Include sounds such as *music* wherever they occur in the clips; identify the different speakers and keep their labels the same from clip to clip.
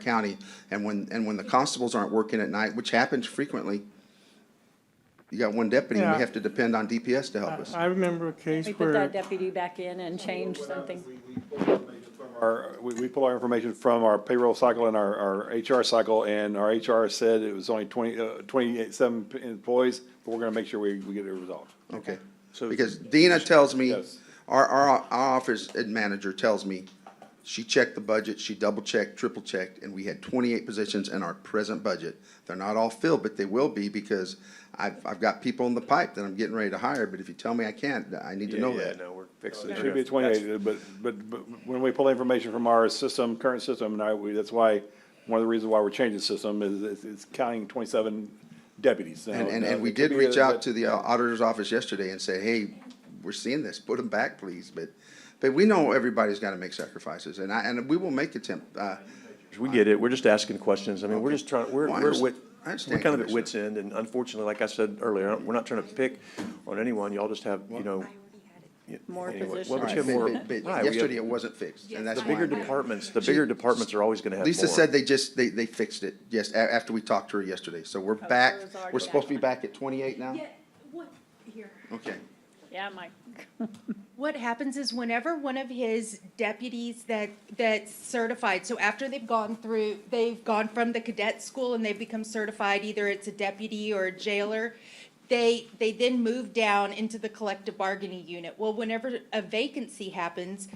Speaker 1: county. And when, and when the constables aren't working at night, which happens frequently, you got one deputy, and we
Speaker 2: Yeah.
Speaker 1: have to depend on DPS to help us.
Speaker 2: I remember a case
Speaker 3: We put that
Speaker 2: where,
Speaker 3: deputy back in and changed something.
Speaker 4: Our, we, we pull our information from our payroll cycle and our, our HR cycle, and our HR said it was only twenty, uh, twenty-seven employees, but we're gonna make sure we, we get it resolved.
Speaker 1: Okay.
Speaker 5: So-
Speaker 1: Because Dina tells me,
Speaker 4: Yes.
Speaker 1: our, our, our office ad- manager tells me, she checked the budget, she double checked, triple checked, and we had twenty-eight positions in our present budget. They're not all filled, but they will be because I've, I've got people in the pipe that I'm getting ready to hire, but if you tell me I can't, I need to know
Speaker 5: Yeah,
Speaker 1: that.
Speaker 5: no, we're fixing.
Speaker 4: It should be twenty-eight, but, but, but when we pull information from our system, current system, and I, we, that's why, one of the reasons why we're changing the system is, is, is counting twenty-seven deputies. Now,
Speaker 1: And, and,
Speaker 4: now,
Speaker 1: and we
Speaker 4: it could
Speaker 1: did
Speaker 4: be
Speaker 1: reach
Speaker 4: that-
Speaker 1: out to the auditor's office yesterday and say, hey, we're seeing this, put them back, please, but, but we know everybody's gotta make sacrifices, and I, and we will make attempt, uh,
Speaker 5: We get it. We're just asking questions. I mean, we're just trying, we're,
Speaker 1: Well, I
Speaker 5: we're,
Speaker 1: underst-
Speaker 5: wit-
Speaker 1: I understand,
Speaker 5: we're kind of at
Speaker 1: Commissioner.
Speaker 5: wits end. And unfortunately, like I said earlier, we're not trying to pick on anyone. Y'all just have, you know. y-
Speaker 3: More
Speaker 5: anyway.
Speaker 3: positions.
Speaker 5: Well, but you have
Speaker 1: but-
Speaker 5: more.
Speaker 1: but- but
Speaker 5: right, we have-
Speaker 1: yesterday it wasn't fixed, and that's
Speaker 5: The
Speaker 1: why.
Speaker 5: bigger departments, the bigger departments are always gonna have more.
Speaker 1: Lisa said they just, they, they fixed it, yes, a- after we talked to her yesterday, so we're back,
Speaker 3: hers already
Speaker 1: we're supposed to be
Speaker 3: back.
Speaker 1: back at twenty-eight now?
Speaker 6: Yeah, what, here.
Speaker 1: Okay,
Speaker 3: Yeah, Mike.
Speaker 6: What happens is whenever one of his deputies that, that's certified, so after they've gone through, they've gone from the cadet school and they've become certified, either it's a deputy or a jailer, they, they then move down into the collective bargaining unit. Well, whenever a vacancy happens,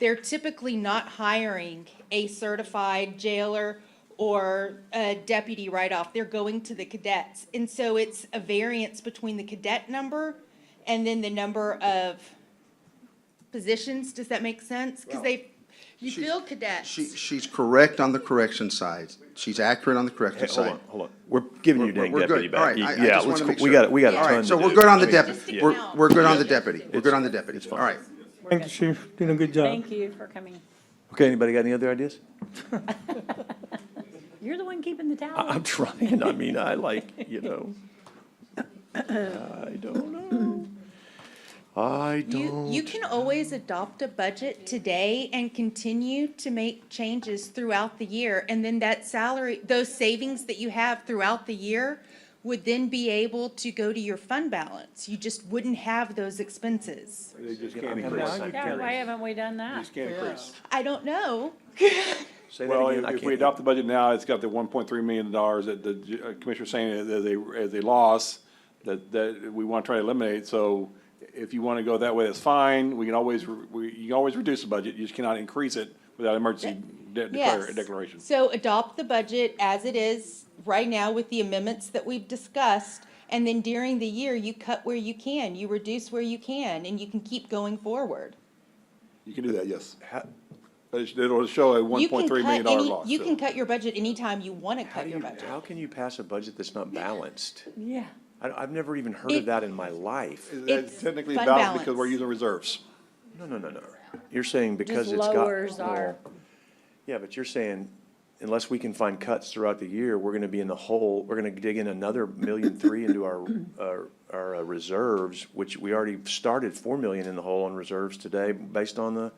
Speaker 6: they're typically not hiring a certified jailer or a deputy right off. They're going to the cadets. And so it's a variance between the cadet number and then the number of positions. Does that make sense? Because they, you
Speaker 1: She-
Speaker 6: feel cadets.
Speaker 1: she, she's correct on the correction side, she's accurate on the
Speaker 5: Hey,
Speaker 1: correction
Speaker 5: hold
Speaker 1: side.
Speaker 5: on, hold on. We're giving you
Speaker 1: We're-
Speaker 5: dang
Speaker 1: we're good.
Speaker 5: deputy
Speaker 1: All
Speaker 5: back.
Speaker 1: right, I- I
Speaker 5: Yeah,
Speaker 1: just
Speaker 5: let's,
Speaker 1: wanna make
Speaker 5: go- we
Speaker 1: sure.
Speaker 5: got, we got a
Speaker 1: All
Speaker 5: ton
Speaker 1: right,
Speaker 5: to
Speaker 1: so we're
Speaker 5: do.
Speaker 1: good on the
Speaker 5: I mean,
Speaker 1: deputy,
Speaker 6: Just
Speaker 1: we're,
Speaker 6: ignore.
Speaker 1: we're good on the
Speaker 6: Yeah.
Speaker 1: deputy, we're good on the deputy, all right.
Speaker 2: thank you, Chief, doing a good job.
Speaker 3: Thank you for coming.
Speaker 5: *laughs* Okay, anybody got any other ideas?
Speaker 3: You're the one keeping the
Speaker 5: I,
Speaker 3: tally.
Speaker 5: I'm trying. I mean, I like, you know. I don't know. I
Speaker 6: You,
Speaker 5: don't.
Speaker 6: you can always adopt a budget today and continue to make changes throughout the year. And then that salary, those savings that you have throughout the year would then be able to go to your fund balance. You just wouldn't have those expenses.
Speaker 4: They just
Speaker 5: Yeah,
Speaker 4: can't
Speaker 5: I'm
Speaker 4: increase,
Speaker 5: curious.
Speaker 3: Yeah, why haven't we done that?
Speaker 4: just can't increase.
Speaker 6: I don't know.
Speaker 5: Say that
Speaker 4: Well,
Speaker 5: again. I
Speaker 4: if we
Speaker 5: can't-
Speaker 4: adopt the budget now, it's got the one point three million dollars that the j- uh, commissioner's saying as as a, as a loss that, that we want to try to eliminate, so if you want to go that way, that's fine, we can always, re- we, you can always reduce the budget, you just cannot increase it without emergency de- declar-
Speaker 6: Yes.
Speaker 4: declaration.
Speaker 6: So adopt the budget as it is right now with the amendments that we've discussed. And then during the year, you cut where you can, you reduce where you can, and you can keep going forward.
Speaker 4: You can do that, yes.
Speaker 5: How-
Speaker 4: But it- It'll show a one
Speaker 6: You can
Speaker 4: point three million
Speaker 6: cut
Speaker 4: dollar
Speaker 6: any-
Speaker 4: loss.
Speaker 6: You
Speaker 4: so.
Speaker 6: can cut your budget anytime you want to
Speaker 5: How
Speaker 6: cut
Speaker 5: do
Speaker 6: your
Speaker 5: you,
Speaker 6: budget.
Speaker 5: how can you pass a budget that's not balanced?
Speaker 3: Yeah.
Speaker 5: I, I've never even heard of
Speaker 6: It-
Speaker 5: that in my life.
Speaker 4: That's
Speaker 6: it's
Speaker 4: technically
Speaker 6: fund
Speaker 4: balanced because
Speaker 6: balance.
Speaker 4: we're using reserves.
Speaker 5: No, no, no, no. You're saying because
Speaker 3: Just
Speaker 5: it's got.
Speaker 3: lowers our-
Speaker 5: well, Yeah, but you're saying unless we can find cuts throughout the year, we're gonna be in the hole, we're gonna dig in another million three
Speaker 3: *laughs*
Speaker 5: into our, our, our uh, reserves, which we already started four million in the hole on reserves today based on the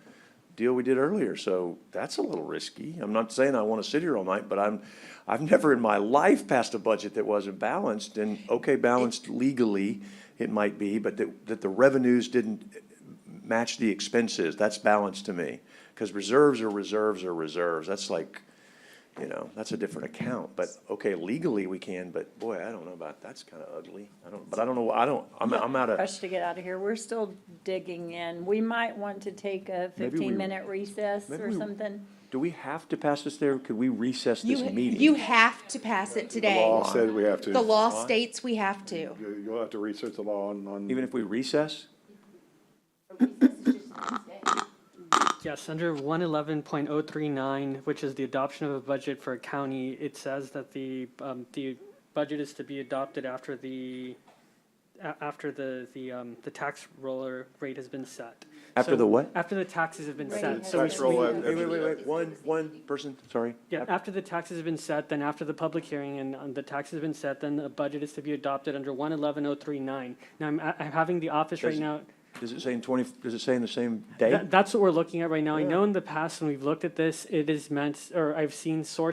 Speaker 5: deal we did earlier. So that's a little risky. I'm not saying I wanna sit here all night, but I'm, I've never in my life passed a budget that wasn't balanced and, okay, balanced legally, it might be, but that, that the revenues didn't match the expenses. That's balanced to me. Because reserves are reserves are reserves. That's like, you know, that's a different account. But, okay, legally we can, but boy, I don't know about, that's kind of ugly. I don't, but I don't know, I don't, I'm, I'm out of,
Speaker 3: Rush to get out of here. We're still digging in. We might want to take a
Speaker 5: Maybe we-
Speaker 3: fifteen-minute recess
Speaker 5: maybe
Speaker 3: or
Speaker 5: we-
Speaker 3: something.
Speaker 5: do we have to pass this there? Could we recess this
Speaker 6: You,
Speaker 5: meeting?
Speaker 6: you have to pass it today.
Speaker 4: Law said we have to.
Speaker 6: The law states we have to.
Speaker 4: You- You'll have to research the law on, on.
Speaker 5: Even if we recess?
Speaker 7: Yes, under one eleven point oh three nine, which is the adoption of a budget for a county, it says that the, um, the budget is to be adopted after the, a- after the, the, um, the tax roller rate has been set.
Speaker 5: After
Speaker 7: So-
Speaker 5: the what?
Speaker 7: After the taxes have been set, so
Speaker 4: Tax roll
Speaker 5: Wait,
Speaker 4: at-
Speaker 5: wait, wait, wait, one, one person, sorry.
Speaker 7: Yeah, after the taxes have been set, then after the public hearing and um, the taxes have been set, then a budget is to be adopted under one eleven oh three nine. Now, I'm, I'm having the office right
Speaker 5: Does-
Speaker 7: now.
Speaker 5: Does it say in twenty, does it say in the same day?
Speaker 7: That- That's what we're looking at right now. I know in the past, when we've looked at this, it is meant, or I've seen sources